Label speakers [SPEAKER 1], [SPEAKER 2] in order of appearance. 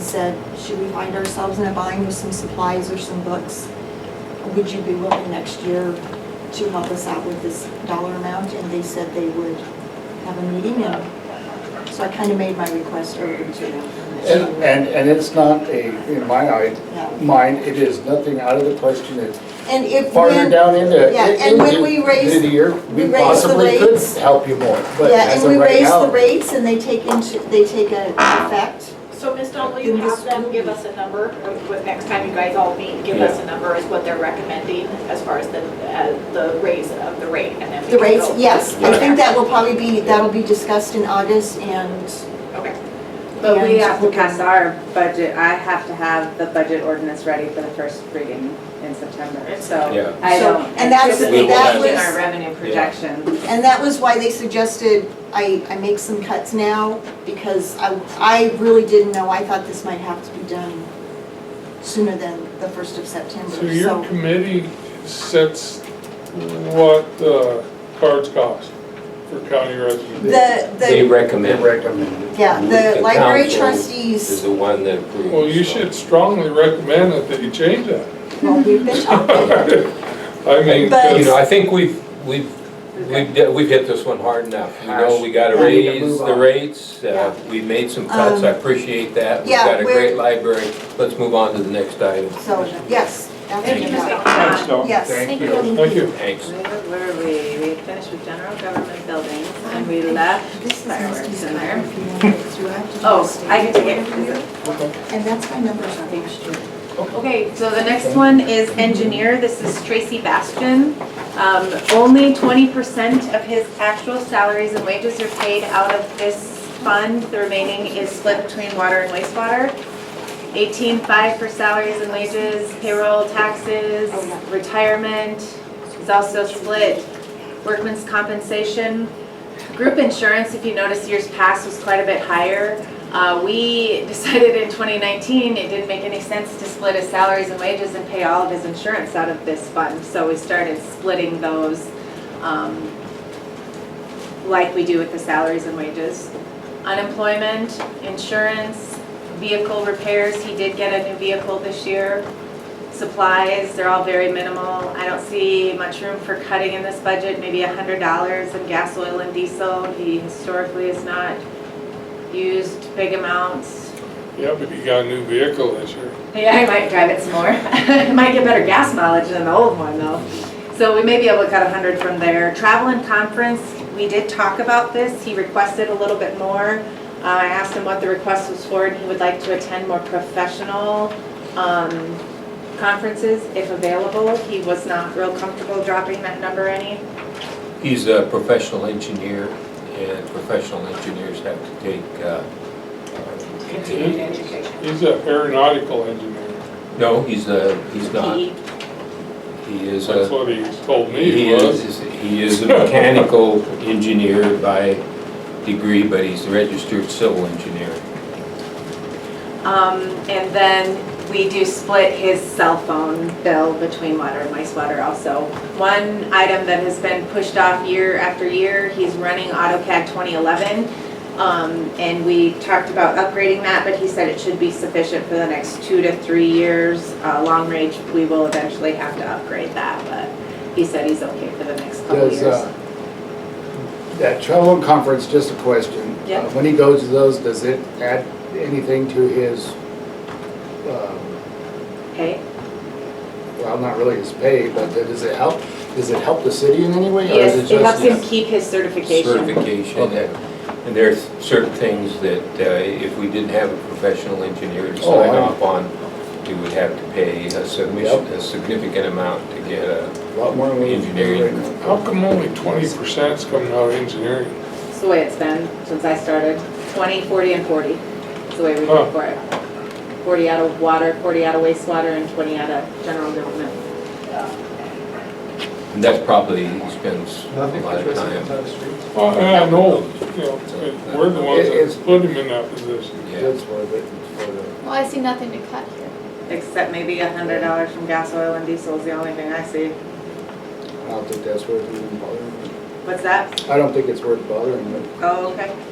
[SPEAKER 1] said, should we find ourselves in a bind with some supplies or some books? Would you be willing next year to help us out with this dollar amount? And they said they would have a meeting and so I kind of made my request over to them.
[SPEAKER 2] And, and- and it's not a, in my eye, mind, it is nothing out of the question. It's
[SPEAKER 1] And if.
[SPEAKER 2] farther
[SPEAKER 1] when-
[SPEAKER 2] down into,
[SPEAKER 1] Yeah, and when we
[SPEAKER 2] into
[SPEAKER 1] raise-
[SPEAKER 2] into the year,
[SPEAKER 1] we
[SPEAKER 2] we
[SPEAKER 1] raise the
[SPEAKER 2] possibly could
[SPEAKER 1] rates-
[SPEAKER 2] help you more. But
[SPEAKER 1] Yeah,
[SPEAKER 2] as
[SPEAKER 1] and
[SPEAKER 2] of
[SPEAKER 1] we
[SPEAKER 2] right
[SPEAKER 1] raise the
[SPEAKER 2] now,
[SPEAKER 1] rates and they take into, they take a effect.
[SPEAKER 3] So Ms. Dahl, will you have them give us a number, or what- next time you guys all meet, give us a number is what they're recommending as far as the, uh, the raise of the rate and then we
[SPEAKER 1] The
[SPEAKER 3] can
[SPEAKER 1] rates,
[SPEAKER 3] go-
[SPEAKER 1] yes, I think that will probably be, that'll be discussed in August and.
[SPEAKER 3] Okay,
[SPEAKER 4] But we
[SPEAKER 1] and
[SPEAKER 4] have to
[SPEAKER 1] we'll-
[SPEAKER 4] pass our budget, I have to have the budget ordinance ready for the first reading in September, so
[SPEAKER 5] Yeah.
[SPEAKER 4] I
[SPEAKER 1] So-
[SPEAKER 4] don't.
[SPEAKER 1] and that's-
[SPEAKER 4] anticipate
[SPEAKER 5] that
[SPEAKER 4] changing
[SPEAKER 1] was-
[SPEAKER 4] Our revenue projection.
[SPEAKER 1] And that was why they suggested I, I make some cuts now because I, I really didn't know, I thought this might have to be done sooner than the first of September,
[SPEAKER 6] So your
[SPEAKER 1] so.
[SPEAKER 6] committee sets what uh, cards cost for county residents?
[SPEAKER 1] The,
[SPEAKER 5] They
[SPEAKER 1] the,
[SPEAKER 2] they
[SPEAKER 5] recommend
[SPEAKER 2] recommend it.
[SPEAKER 1] yeah, the
[SPEAKER 5] The
[SPEAKER 1] library
[SPEAKER 5] council is
[SPEAKER 1] trustees,
[SPEAKER 5] the one that approves.
[SPEAKER 6] Well, you
[SPEAKER 5] so.
[SPEAKER 6] should strongly recommend that they change that.
[SPEAKER 1] well, we've been talking.
[SPEAKER 6] I mean,
[SPEAKER 1] But-
[SPEAKER 5] You know,
[SPEAKER 6] 'cause-
[SPEAKER 5] I think we've, we've, we've, de- we've hit this one hard enough. You know, we gotta
[SPEAKER 1] Yeah.
[SPEAKER 2] We need to
[SPEAKER 5] raise
[SPEAKER 2] move
[SPEAKER 5] the
[SPEAKER 2] on.
[SPEAKER 5] rates, uh,
[SPEAKER 1] Yeah. Um,
[SPEAKER 5] we made some cuts, I appreciate that. We've
[SPEAKER 1] yeah,
[SPEAKER 5] got a
[SPEAKER 1] we're-
[SPEAKER 5] great library, let's move on to the next item.
[SPEAKER 1] So, yes,
[SPEAKER 3] thank
[SPEAKER 1] absolutely.
[SPEAKER 3] you, Ms. Dahl.
[SPEAKER 6] Thanks, Dawn.
[SPEAKER 1] Yes.
[SPEAKER 2] Thank you.
[SPEAKER 6] Thank you.
[SPEAKER 5] Thanks.
[SPEAKER 4] Where were we? We finished with general government buildings and we left
[SPEAKER 1] This is
[SPEAKER 4] fireworks
[SPEAKER 1] Misty's
[SPEAKER 4] in
[SPEAKER 1] card
[SPEAKER 4] there.
[SPEAKER 1] if you want it, so I have to.
[SPEAKER 4] Oh, I get to get, is it?
[SPEAKER 1] And that's my number on page two.
[SPEAKER 4] Okay, so the next one is engineer. This is Tracy Bastian. Um, Only 20% of his actual salaries and wages are paid out of this fund. The remaining is split between water and wastewater. 18.5 for salaries and wages, payroll, taxes, retirement is also split. Workman's compensation, group insurance, if you notice years past, was quite a bit higher. Uh, We decided in 2019, it didn't make any sense to split his salaries and wages and pay all of his insurance out of this fund. So we started splitting those um, like we do with the salaries and wages. Unemployment, insurance, vehicle repairs, he did get a new vehicle this year. Supplies, they're all very minimal. I don't see much room for cutting in this budget, maybe $100 in gas, oil, and diesel. He historically has not used big amounts.
[SPEAKER 6] Yeah, but you got a new vehicle this year.
[SPEAKER 4] Yeah, I might drive it some more. I might get better gas mileage than the old one though. So we may be able to cut a hundred from there. Travel and conference, we did talk about this. He requested a little bit more. Uh, I asked him what the request was for and he would like to attend more professional, um, conferences if available. He was not real comfortable dropping that number any.
[SPEAKER 5] He's a professional engineer, and professional engineers have to take, uh,
[SPEAKER 3] continued education.
[SPEAKER 6] He's an aeronautical engineer.
[SPEAKER 5] no, he's a, he's not.
[SPEAKER 4] He-
[SPEAKER 5] He is
[SPEAKER 6] That's
[SPEAKER 5] a,
[SPEAKER 6] what he told me
[SPEAKER 5] he
[SPEAKER 6] he was.
[SPEAKER 5] is, he is a mechanical engineer by degree, but he's a registered civil engineer.
[SPEAKER 4] Um, and then we do split his cell phone bill between water and wastewater also. One item that has been pushed off year after year, he's running AutoCAD 2011. Um, and we talked about upgrading that, but he said it should be sufficient for the next two to three years. Uh, long range, we will eventually have to upgrade that, but he said he's okay for the next couple
[SPEAKER 2] Does,
[SPEAKER 4] years.
[SPEAKER 2] uh, that travel and conference, just a question.
[SPEAKER 4] Yeah.
[SPEAKER 2] Uh, When he goes to those, does it add anything to his, um,
[SPEAKER 4] Okay?
[SPEAKER 2] well, not really his pay, but does it help, does it help the city in any way? or is
[SPEAKER 4] Yes, it helps
[SPEAKER 2] just-
[SPEAKER 4] him keep his certification.
[SPEAKER 5] certification.
[SPEAKER 2] Okay.
[SPEAKER 5] and- And there's certain things that uh, if we didn't have a professional engineer to
[SPEAKER 2] Oh,
[SPEAKER 5] sign
[SPEAKER 2] I-
[SPEAKER 5] off on, we would have to pay a submission, a significant amount to get a,
[SPEAKER 2] A Lot more than we can do right
[SPEAKER 5] Engineering.
[SPEAKER 2] now.
[SPEAKER 6] How come only twenty percent's coming out of engineering?
[SPEAKER 4] It's the way it's been since I started, 20, 40, and 40. It's the way we
[SPEAKER 6] Huh.
[SPEAKER 4] go for it. 40 out of water, 40 out of wastewater, and 20 out of general government.
[SPEAKER 5] and that's probably, he spends a
[SPEAKER 7] Nothing
[SPEAKER 5] lot
[SPEAKER 7] for
[SPEAKER 5] of
[SPEAKER 7] residents
[SPEAKER 5] time.
[SPEAKER 7] on the streets.
[SPEAKER 6] Well, I know, you know, but we're the ones
[SPEAKER 2] It's-
[SPEAKER 6] that put him in that position.
[SPEAKER 5] Yeah,
[SPEAKER 2] It's worth it, it's worth it.
[SPEAKER 8] Well, I see nothing to cut here.
[SPEAKER 4] Except maybe $100 from gas, oil, and diesel is the only thing I see.
[SPEAKER 2] I don't think that's worth even bothering.
[SPEAKER 4] What's that?
[SPEAKER 2] I don't think it's worth bothering,
[SPEAKER 4] Oh, okay.